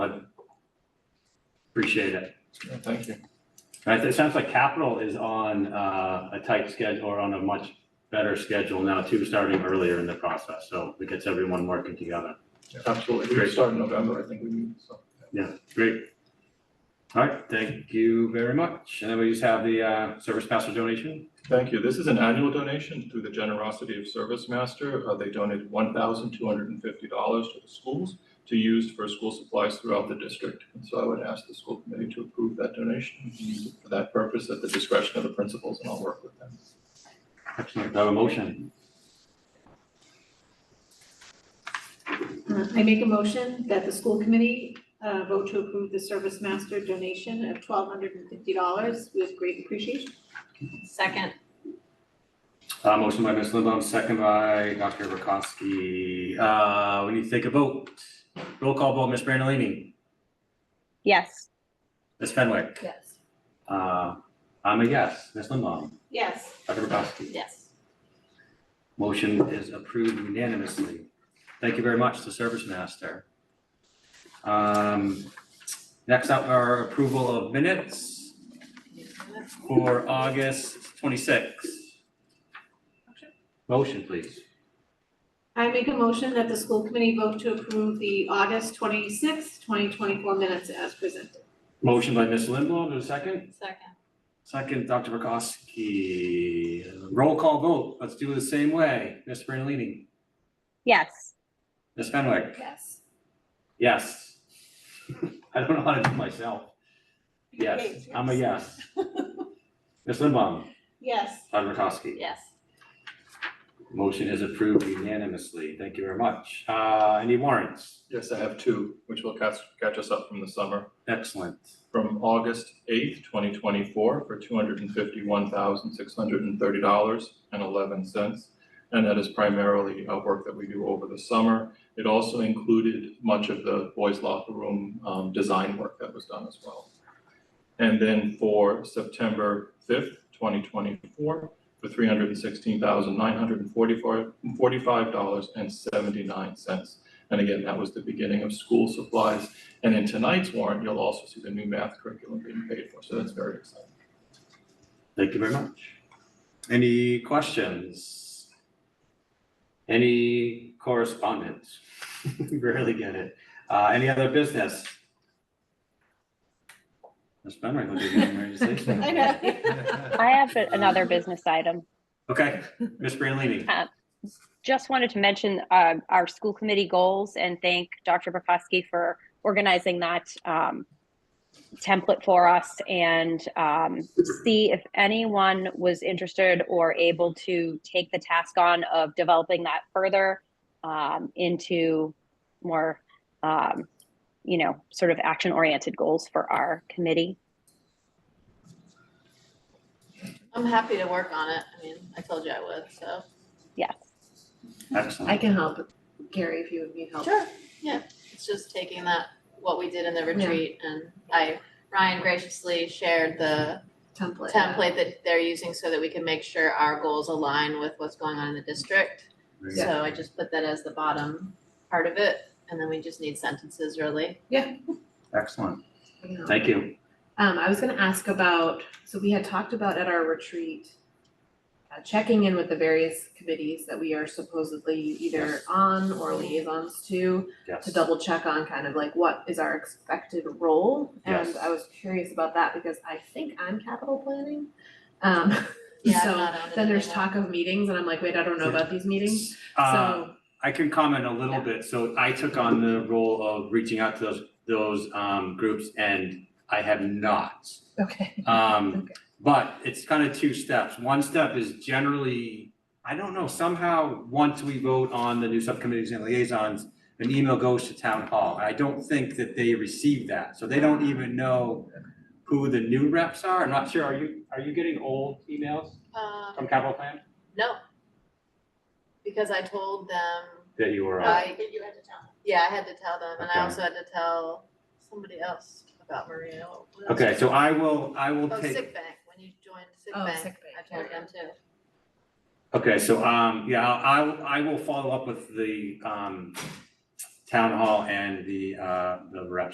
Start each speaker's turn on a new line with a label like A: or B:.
A: Appreciate it.
B: Thank you.
A: All right, so it sounds like capital is on uh, a tight schedule or on a much better schedule now too, starting earlier in the process. So it gets everyone working together. Absolutely.
B: We
A: Great,
B: start in November, I think we meet, so.
A: great. All right, thank you very much. And then we just have the uh, service master donation.
B: Thank you. This is an annual donation through the generosity of Service Master. Uh, They donated one thousand two hundred and fifty dollars to the schools to use for school supplies throughout the district. And so I would ask the school committee to approve that donation and use it for that purpose at the discretion of the principals, and I'll work with them.
A: Excellent. Do I have a motion?
C: Uh, I make a motion that the school committee uh, vote to approve the service master donation of twelve hundred and fifty dollars with great appreciation.
D: Second,
A: Uh, Motion by Ms. Lindblom, second by Dr. Rakowski. Uh, We need to take a vote. Roll call vote, Ms. Brandalini,
E: yes,
A: Ms. Fenwick.
D: yes.
A: Uh, I'm a yes. Ms. Lindblom,
C: Yes.
A: Dr. Rakowski.
D: Yes.
A: Motion is approved unanimously. Thank you very much to Service Master. Um, Next up are approval of minutes for August 26th. Motion, please.
C: I make a motion that the school committee vote to approve the August twenty-sixth, twenty twenty-four minutes as presented.
A: Motion by Ms. Lindblom, a second.
D: Second,
A: Second, Dr. Rakowski. Roll call vote. Let's do it the same way. Ms. Brandalini?
E: yes,
A: Ms. Fenwick?
C: Yes.
A: Yes. I don't know how to do myself. Yes, I'm a yes. Ms. Limbaum,
C: Yes.
A: Todd Rakowski.
D: yes.
A: Motion is approved unanimously. Thank you very much. Uh, any warrants?
B: Yes, I have two, which will catch, catch us up from the summer.
A: Excellent.
B: from August eighth, twenty twenty-four for two hundred and fifty-one thousand, six hundred and thirty dollars and eleven cents. And that is primarily uh, work that we do over the summer. It also included much of the boys locker room um, design work that was done as well. And then for September fifth, twenty twenty-four, for three hundred and sixteen thousand, nine hundred and forty-four, forty-five dollars and seventy-nine cents. And again, that was the beginning of school supplies and in tonight's warrant, you'll also see the new math curriculum being paid for, so that's very exciting.
A: Thank you very much. Any questions? Any correspondence? We Rarely get it. Uh, any other business? Ms. Benrick, would you mind raising your hand?
C: I know.
E: I have a- another business item.
A: Okay, Ms. Brandalini.
E: Just wanted to mention uh, our school committee goals and thank Dr. Bukowski for organizing that um, template for us and um, see if anyone was interested or able to take the task on of developing that further um, into more, um, you know, sort of action-oriented goals for our committee.
D: I'm happy to work on it. I mean, I told you I would, so.
E: Yes.
F: I
A: Excellent.
F: can help, Gary, if you would need help.
D: Sure. Yeah, it's just taking that, what we did in the retreat and I, Ryan graciously shared the
F: Template.
D: template that they're using so that we can make sure our goals align with what's going on in the district.
A: Very good.
D: So I just put that as the bottom part of it and then we just need sentences really.
A: Excellent.
F: Yeah.
A: Thank you.
F: Um, I was gonna ask about, so we had talked about at our retreat, uh, checking in with the various committees that we are supposedly either
A: Yes.
F: on or liaisons to,
A: Yes.
F: to double check on kind of like what is our expected role?
A: Yes.
F: And I was curious about that because I think I'm capital planning. Um,
D: Yeah, I'm
F: so
D: not on it
F: then there's
D: anymore.
F: talk of meetings and I'm like, wait, I don't know about these meetings,
A: Uh,
F: so,
A: I can comment a little
F: Yeah.
A: bit. So I took on the role of reaching out to those, those, um, groups and I have not.
F: okay.
A: Um,
F: Okay.
A: but it's kind of two steps. One step is generally, I don't know, somehow, once we vote on the new subcommittees and liaisons, an email goes to town hall. I don't think that they receive that, so they don't even know who the new reps are. I'm not sure. Are you, are you getting old emails
D: Um,
A: from capital plan?
D: no. Because I told them
A: That Uh, you were on?
D: I, yeah, I had to tell them, and
A: Okay.
D: I also had to tell somebody else about Maria. What else?
A: Okay, so I will, I will
D: Oh,
A: take.
D: sick bank, when you joined sick
F: Oh,
D: bank,
F: sick
D: I told them too.
A: Okay, so, um, yeah, I, I will follow up with the, um, town hall and the, uh, the reps